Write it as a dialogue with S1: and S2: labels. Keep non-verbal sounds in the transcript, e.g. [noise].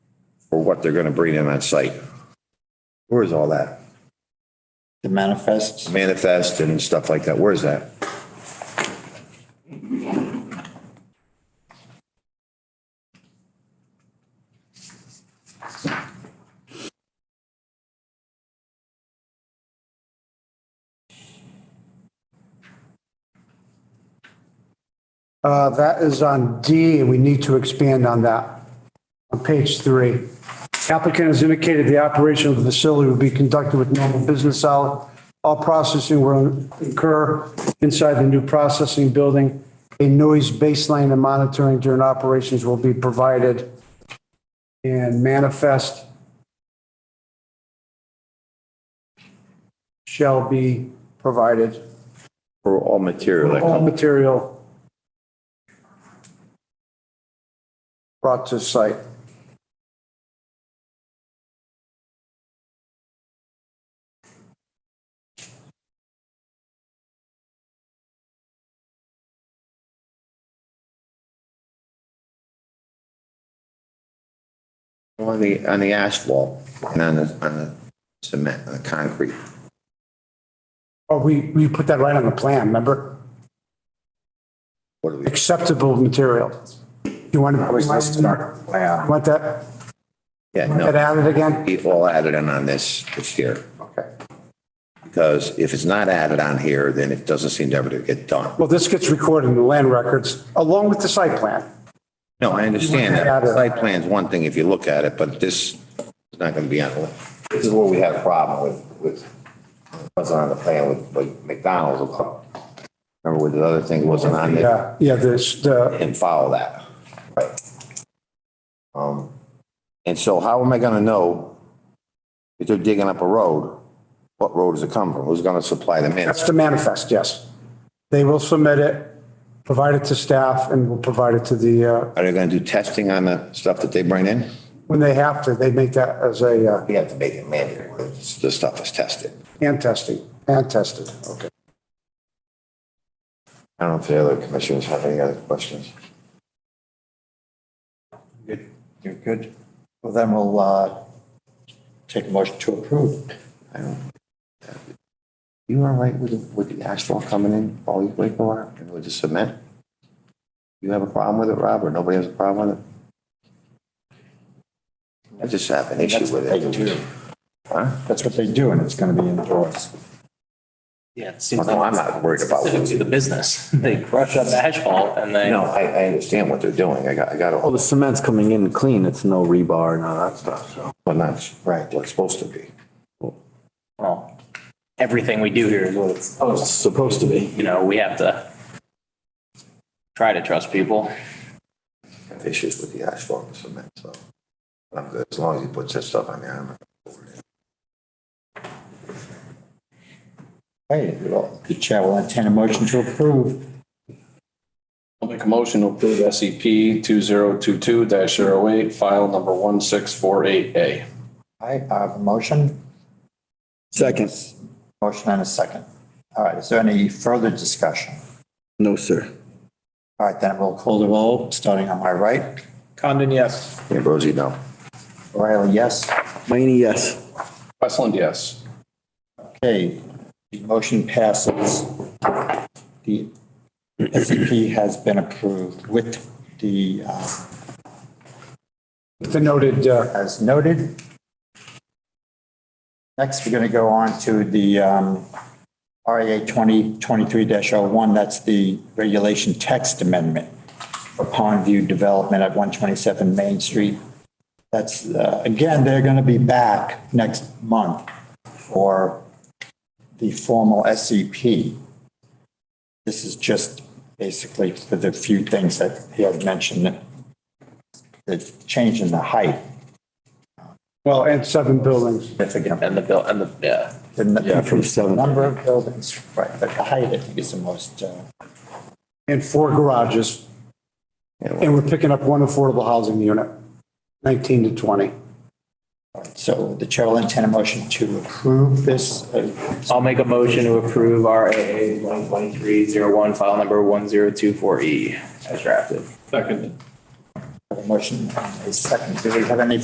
S1: for what they're gonna bring in on site. Where is all that?
S2: The manifests,
S1: Manifest and stuff like that, where is that?
S3: Uh, That is on D, and we need to expand on that. On page three, applicant has indicated the operation of the facility will be conducted with normal business hours. All processing will occur inside the new processing building. A noise baseline and monitoring during operations will be provided. And manifest shall be provided.
S1: For all material that
S3: All
S1: comes,
S3: material brought to site.
S1: on the, on the asphalt and on the, on the cement, on the concrete.
S3: Oh, we, we put that right on the plan, remember?
S1: What do we,
S3: Acceptable material. You want to, want that,
S1: yeah,
S3: that
S1: no,
S3: added again?
S1: be all added in on this, it's here.
S3: Okay.
S1: Because if it's not added on here, then it doesn't seem to ever to get done.
S3: Well, this gets recorded in the land records along with the site plan.
S1: No, I understand that.
S3: Add it.
S1: Site plan's one thing if you look at it, but this is not going to be on, the list. this is where we had a problem with, with, wasn't on the plan with like McDonald's. about- Remember with the other thing wasn't on there
S3: Yeah, yeah, there's the,
S1: and follow that. Right. Um, and so how am I going to know if they're digging up a road, what road does it come from? Who's going to supply the man?
S3: that's the manifest, yes. They will submit it, provide it to staff and will provide it to the, uh,
S1: Are they going to do testing on the stuff that they bring in?
S3: when they have to, they make that as a, uh,
S1: We have to make it mandatory. The stuff is tested.
S3: And testing, and tested, okay.
S1: I don't know if the other commissioners have any other questions.
S2: Good. you're good. Well, then we'll uh, take a motion to approve.
S1: I don't. You all right with, the- with the asphalt coming in, all you wait for, and with the cement? You have a problem with it, Rob, or nobody has a problem with it? I just have an issue with
S2: They
S1: it.
S2: do.
S1: Huh?
S2: That's what they do, and it's going to be indoors.
S4: Yeah, it
S1: Oh,
S4: seems
S1: No, I'm
S4: like
S1: not worried about
S4: specific
S1: it.
S4: to the business. [laughs] They crush up the asphalt and they.
S1: No, I, I understand what they're doing. I got, I got
S5: Well,
S1: all
S5: the
S1: this,
S5: cement's coming in clean, it's no rebar and all that stuff, so.
S1: but not right, what it's supposed to be.
S4: Well, everything we do here is what it's,
S5: Oh, it's supposed to be.
S4: you know, we have to try to trust people.
S1: I have issues with the asphalt and cement, so. I'm good, as long as he puts that stuff on there, I'm.
S2: Hey, well, the chair will entertain a motion to approve.
S6: I'll make a motion to approve SCP two zero two two 8 file number one six four eight A.
S2: I have a motion,
S5: Second.
S2: motion and a second. All right, is there any further discussion?
S5: No, sir.
S2: All right, then we'll call the roll, starting on my right.
S7: Condon, yes.
S1: Ambrosi, no.
S2: O'Reilly, yes.
S5: Mayne, yes.
S6: Westland, yes.
S2: Okay, the motion passes. The SCP has been approved with the, uh,
S3: The noted, uh,
S2: as noted. Next, we're going to go on to the um, RA 2023-01, that's the regulation text amendment for Pond View Development at 127 Main Street. That's, uh, again, they're going to be back next month for the formal SCP. This is just basically for the few things that he had mentioned, the change in the height.
S3: well, and seven buildings.
S4: And the bill, and the, yeah.
S2: Yeah,
S5: from seven.
S2: Number of buildings, right, but the height, I think, is the most, uh,
S3: and four garages. And we're picking up one affordable housing unit, 19 to 20.
S2: so the chair will entertain a motion to approve this.
S4: I'll make a motion to approve RAA one twenty-three zero one, file number one zero two four E as drafted.
S2: Second. Motion, and a second. Do we have any